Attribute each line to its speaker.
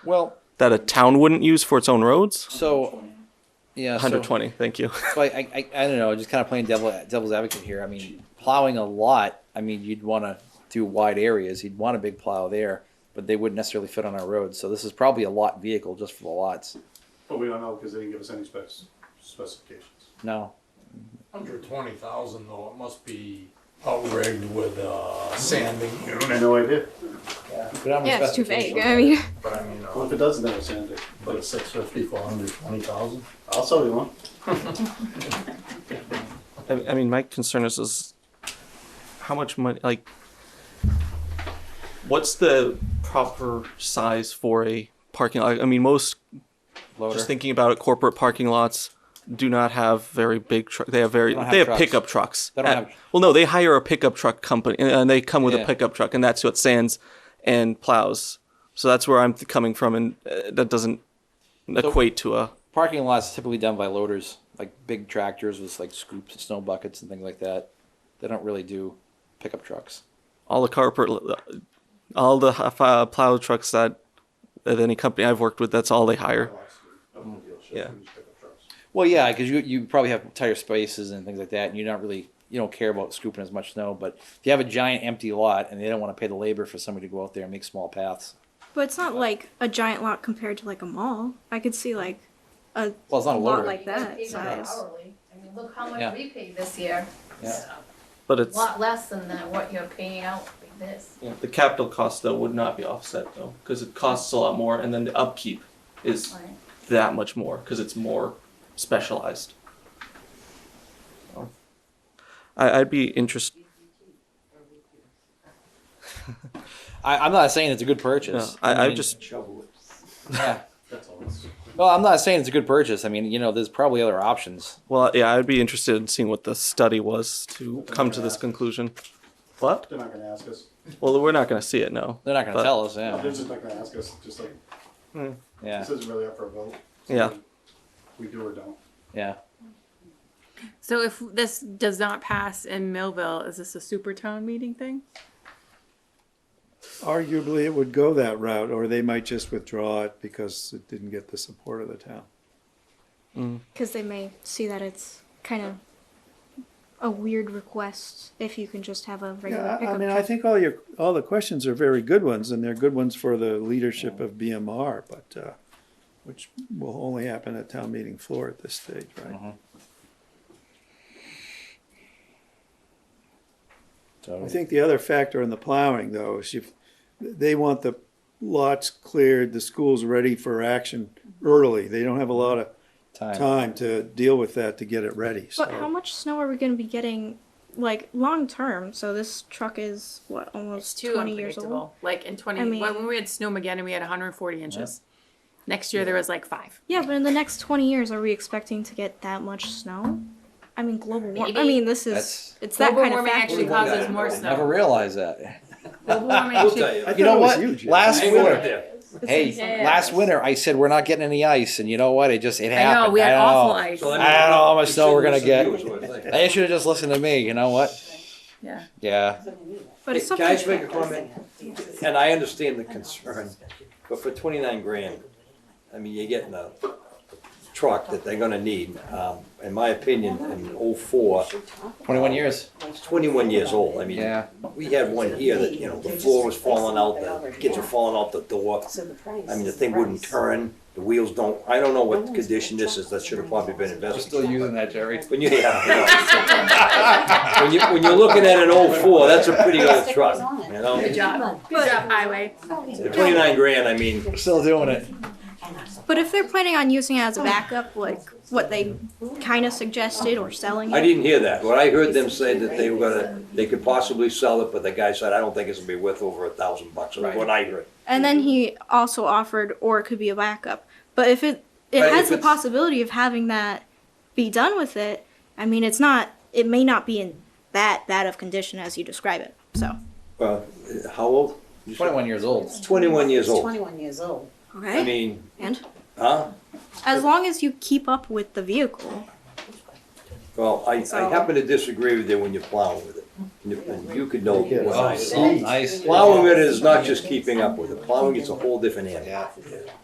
Speaker 1: Well,
Speaker 2: that a town wouldn't use for its own roads?
Speaker 1: so yeah, so-
Speaker 2: 120. Thank you.
Speaker 1: So I, I, I I don't know, just kind of playing devil devil's advocate here. I mean, plowing a lot. I mean, you'd want to do wide areas. You'd want a big plow there, but they wouldn't necessarily fit on our roads. So this is probably a lot vehicle just for the lots.
Speaker 3: But we don't know because they didn't give us any specs, specifications.
Speaker 1: No,
Speaker 4: Under twenty thousand though, it must be outrigged with a sanding
Speaker 3: I have
Speaker 4: unit.
Speaker 3: no idea.
Speaker 5: Yeah, it's too vague. I mean,
Speaker 4: But I mean,
Speaker 3: What
Speaker 4: uh,
Speaker 3: if it doesn't have a sand dune?
Speaker 4: but a six fifty for under twenty thousand?
Speaker 3: I'll sell you one.
Speaker 2: I, I mean, my concern is, is how much money, like, what's the proper size for a parking lot? I mean, most,
Speaker 1: loader.
Speaker 2: just thinking about it, corporate parking lots do not have very big truck. They have very,
Speaker 1: They don't
Speaker 2: they have,
Speaker 1: have trucks.
Speaker 2: pickup trucks.
Speaker 1: They don't
Speaker 2: Uh,
Speaker 1: have-
Speaker 2: well, no, they hire a pickup truck company and- and they come with
Speaker 1: Yeah.
Speaker 2: a pickup truck and that's what sands and plows. So that's where I'm th- coming from and uh, that doesn't equate to a,
Speaker 1: Parking lots typically done by loaders, like big tractors with like scoops and snow buckets and things like that. They don't really do pickup trucks.
Speaker 2: all the corporate, all the uh, plow trucks that at any company I've worked with, that's all they hire. Yeah.
Speaker 1: Well, yeah, because you you probably have tighter spaces and things like that, and you're not really you don't care about scooping as much snow. But if you have a giant empty lot and they don't want to pay the labor for somebody to go out there and make small paths,
Speaker 5: but it's not like a giant lot compared to like a mall. I could see like a
Speaker 1: well, it's not a
Speaker 5: lot
Speaker 1: loader.
Speaker 5: like that
Speaker 6: Even
Speaker 5: size.
Speaker 6: hourly. I mean, look how
Speaker 1: Yeah.
Speaker 6: much we pay this year.
Speaker 1: Yeah.
Speaker 2: But
Speaker 6: A
Speaker 2: it's
Speaker 6: Lot less than that, what you're paying out with this.
Speaker 2: the capital cost though would not be offset though because it costs a lot more, and then the upkeep is
Speaker 6: Right.
Speaker 2: that much more because it's more specialized. So, I, I'd be interested.
Speaker 1: I, I'm not saying it's a good purchase.
Speaker 2: I, I
Speaker 1: mean,
Speaker 2: just
Speaker 3: Shovel it.
Speaker 1: yeah.
Speaker 3: That's all. it's-
Speaker 1: Well, I'm not saying it's a good purchase. I mean, you know, there's probably other options.
Speaker 2: well, yeah, I'd be interested in seeing what the study was to come to this conclusion. What?
Speaker 3: They're not gonna ask us.
Speaker 2: Well, we're not going to see it, no.
Speaker 1: They're not going
Speaker 2: But-
Speaker 1: to tell us. Yeah,
Speaker 3: They're just not gonna ask us, just like,
Speaker 1: yeah,
Speaker 3: this isn't really up for a vote.
Speaker 2: Yeah.
Speaker 3: We do or don't.
Speaker 1: yeah.
Speaker 7: So if this does not pass in Millville, is this a super town meeting thing?
Speaker 8: Arguably, it would go that route, or they might just withdraw it because it didn't get the support of the town.
Speaker 5: Because they may see that it's kind of a weird request if you can just have a regular
Speaker 8: Yeah, I-
Speaker 5: pickup
Speaker 8: I mean,
Speaker 5: truck.
Speaker 8: I think all your, all the questions are very good ones, and they're good ones for the leadership of BMR, but, uh, which will only happen at town meeting floor at this stage, right?
Speaker 1: So
Speaker 8: I think the other factor in the plowing, though, is you, they want the lots cleared, the schools ready for action early. They don't have a lot of
Speaker 1: time.
Speaker 8: time to deal with that to get it ready, so.
Speaker 5: But how much snow are we going to be getting, like long term? So this truck is what
Speaker 7: It's
Speaker 5: almost
Speaker 7: too
Speaker 5: twenty years old.
Speaker 7: unpredictable. Like in twenty,
Speaker 5: I mean-
Speaker 7: when we had Snowmageddon, we had hundred and forty inches. Next year, there was like five.
Speaker 5: Yeah, but in the next twenty years, are we expecting to get that much snow? I mean, global warming. I
Speaker 7: Maybe.
Speaker 5: mean, this is
Speaker 1: That's-
Speaker 5: it's that
Speaker 7: Global
Speaker 5: kind of
Speaker 7: warming
Speaker 5: factor.
Speaker 7: actually causes more
Speaker 1: Never
Speaker 7: snow.
Speaker 1: realized that.
Speaker 7: Global warming actually-
Speaker 8: I
Speaker 1: You
Speaker 8: thought
Speaker 1: know
Speaker 8: it was
Speaker 1: what?
Speaker 8: you, Jim.
Speaker 1: Last winter,
Speaker 7: It's insane.
Speaker 1: hey, last winter, I said we're not getting any ice, and you know what? It just it
Speaker 7: I
Speaker 1: happened.
Speaker 7: know, we had
Speaker 1: I know.
Speaker 7: awful ice.
Speaker 1: I don't know how much snow we're gonna get. They should have just listened to me. You know what?
Speaker 7: Yeah.
Speaker 1: Yeah.
Speaker 5: But it's
Speaker 9: Can I
Speaker 5: something.
Speaker 9: just make a comment? And I understand the concern, but for twenty-nine grand, I mean, you're getting a truck that they're gonna need. Um, in my opinion, in oh-four,
Speaker 1: Twenty-one years.
Speaker 9: it's twenty-one years old. I mean,
Speaker 1: Yeah.
Speaker 9: we had one here that, you know, the floor was falling out, the kids were falling out the door. I mean, the thing wouldn't turn, the wheels don't, I don't know what condition this is. That should have probably been investigated.
Speaker 1: using that, Jerry.
Speaker 9: When you, yeah, yeah. When you, when you're looking at an oh-four, that's a pretty old truck, you know?
Speaker 7: Good job. Good job, highway.
Speaker 9: At Twenty-nine grand, I mean,
Speaker 1: We're still doing it.
Speaker 5: But if they're planning on using it as a backup, like what they kind of suggested or selling it,
Speaker 9: I didn't hear that. What I heard them say that they were gonna, they could possibly sell it, but the guy said, I don't think it's gonna be worth over a thousand bucks, is what I heard.
Speaker 5: and then he also offered, or it could be a backup. But if it
Speaker 9: But
Speaker 5: it
Speaker 9: if
Speaker 5: has the
Speaker 9: it's-
Speaker 5: possibility of having that be done with it, I mean, it's not. It may not be in that bad of condition as you describe it. So
Speaker 9: Well, how old? You said-
Speaker 1: Twenty-one years old.
Speaker 9: Twenty-one years old.
Speaker 6: Twenty-one years old.
Speaker 9: I
Speaker 5: okay,
Speaker 9: mean,
Speaker 5: and
Speaker 9: huh?
Speaker 5: as long as you keep up with the vehicle,
Speaker 9: Well, I, I happen to disagree with you when you're plowing with it. and you could know what I
Speaker 1: Oh,
Speaker 9: am.
Speaker 1: nice.
Speaker 9: Plowing it is not just keeping up with it, plowing is a whole different animal.
Speaker 1: Yeah.